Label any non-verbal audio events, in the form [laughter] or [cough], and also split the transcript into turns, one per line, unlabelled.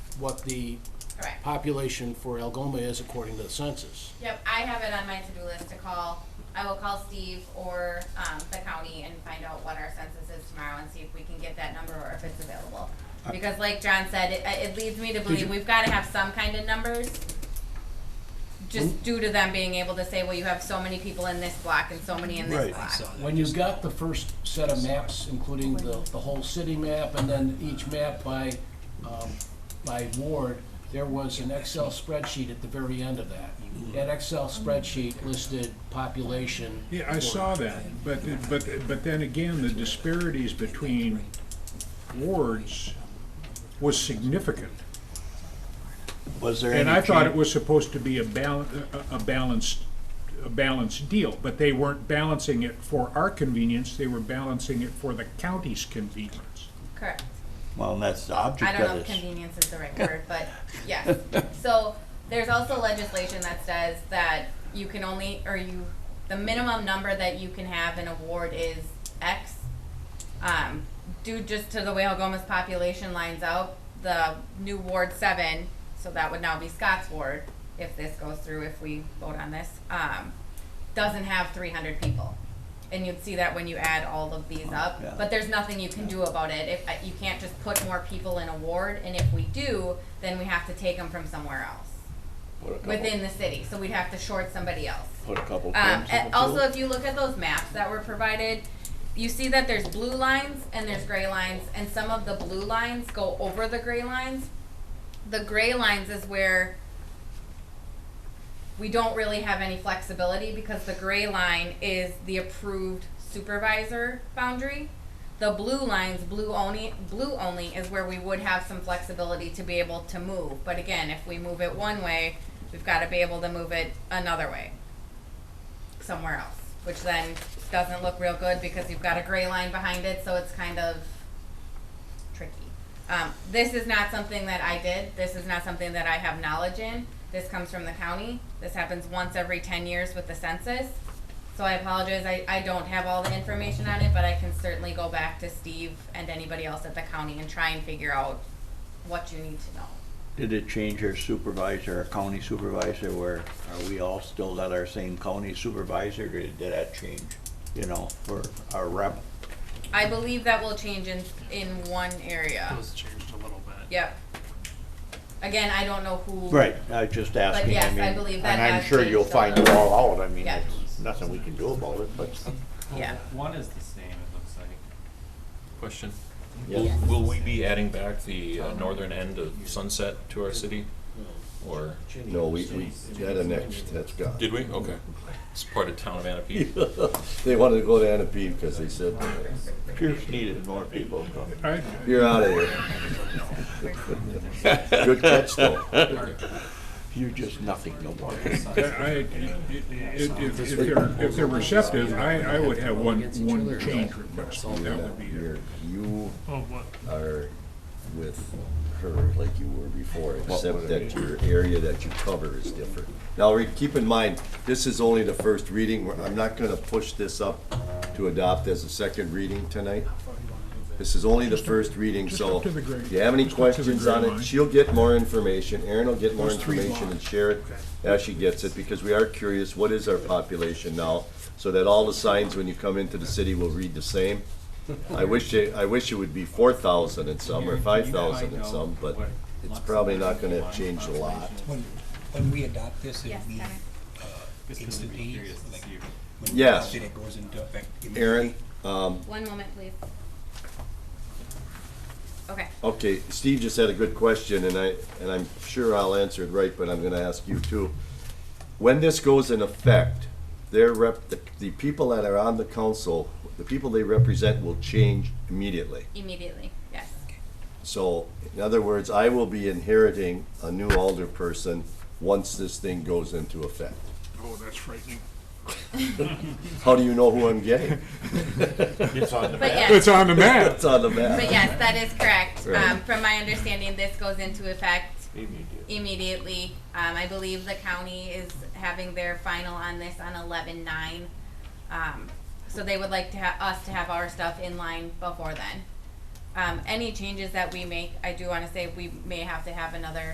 what the
Correct.
population for Algoma is according to the census.
Yep, I have it on my to-do list to call. I will call Steve or, um, the county and find out what our census is tomorrow and see if we can get that number or if it's available. Because like John said, it, it leads me to
you-
believe we've gotta have some kind of numbers. Just due to them being able to say, well, you have so many people in this block and so many in this
Right.
block.
When you got the first set of maps, including the, the whole city map, and then each map by, um, by ward, there was an Excel spreadsheet at the very end of that. That Excel spreadsheet listed population.
Yeah, I saw that, but, but, but then again, the disparities between wards was significant.
Was there any?
And I thought it
change-
was supposed to be a bal, a a balanced, a balanced deal, but they weren't balancing it for our convenience, they were balancing it for the county's convenience.
Correct.
Well, and that's the
I
object
don't know if
of this.
convenience is the right word, but yes. So there's also legislation that says that you can only, or you, the minimum number that you can have in a ward is X. Um, due just to the way Algoma's population lines out, the new Ward seven, so that would now be Scott's ward, if this goes through, if we vote on this, um, doesn't have three hundred people. And you'd see that when you add all of these up,
yeah.
but there's nothing you can do about it, if, uh, you can't just put more people in a ward, and if we do, then we have to take them from somewhere else,
Put a couple-
within the city, so we'd have to short somebody else.
Put a couple
Um,
pins in
and
the
also,
field.
if you look at those maps that were provided, you see that there's blue lines and there's gray lines, and some of the blue lines go over the gray lines. The gray lines is where we don't really have any flexibility because the gray line is the approved supervisor boundary. The blue lines, blue only, blue only is where we would have some flexibility to be able to move. But again, if we move it one way, we've got to be able to move it another way somewhere else, which then doesn't look real good because you've got a gray line behind it, so it's kind of tricky. Um, this is not something that I did. This is not something that I have knowledge in. This comes from the county. This happens once every ten years with the census. So I apologize. I, I don't have all the information on it, but I can certainly go back to Steve and anybody else at the county and try and figure out what you need to know.
Did it change our supervisor, our county supervisor, where are we all still at our same county supervisor? Did did that change, you know, for our rep?
I believe that will change in, in one area.
It was changed a little bit.
Yep. Again, I don't know who.
Right, I was just asking, I
yes, I
mean.
believe that
And I'm
has
sure you'll
changed a
find it
little.
all out, I mean,
Yeah.
it's nothing we can do about it, but. [laughs]
Yeah.
One is the same, it looks like.
Question. Will,
Yeah.
will we be adding back the uh, northern end of Sunset to our city? Or,
No, we, we had an ex, that's gone.
did we? Okay. It's part of town of Anapee.
They wanted to go to Anapee because they said,
Pierce needed more people.
I,
you're out of here.
[laughs]
Good catch though.
You're just nothing, no more.
I, I- if, if- if they're, if they're receptive, I, I would have one, one change request, that would be it.
You're- You
Oh, what?
are with her like you were before, except that your area that you cover is different. Now, re- keep in mind, this is only the first reading. We're- I'm not gonna push this up to adopt as a second reading tonight. This is only the first reading,
just
so
up to the gray-
if you have any
just up to the
questions
gray
on
line.
it, she'll get more information. Erin will get more
Those three
information and
lines.
share it as she gets it, because we are curious, what is our population now? So that all the signs when you come into the city will read the same. I wish it, I wish it would be four thousand and some, or five thousand and some, but it's probably not gonna change a lot.
When, when we adopt this, it'll
Yes,
be,
Connor.
uh,
Just because I'd be
instantly,
curious to
like,
see
when we
Yes.
adopt it, it goes into effect immediately.
Erin, um,
One moment, please. Okay.
okay, Steve just had a good question, and I, and I'm sure I'll answer it right, but I'm gonna ask you too. When this goes in effect, their rep, the, the people that are on the council, the people they represent will change immediately.
Immediately. Yes.
So, in other words, I will be inheriting a new alder person once this thing goes into effect.
Oh, that's frightening.
How do you know who I'm getting?
But yes,
on the
[laughs]
map.
It's on the map.
but yes, that is correct.
Right.
Um, from my understanding, this goes into effect
Immediate.
immediately. Um, I believe the county is having their final on this on eleven nine. Um, so they would like to ha- us to have our stuff in line before then. Um, any changes that we make, I do wanna say we may have to have another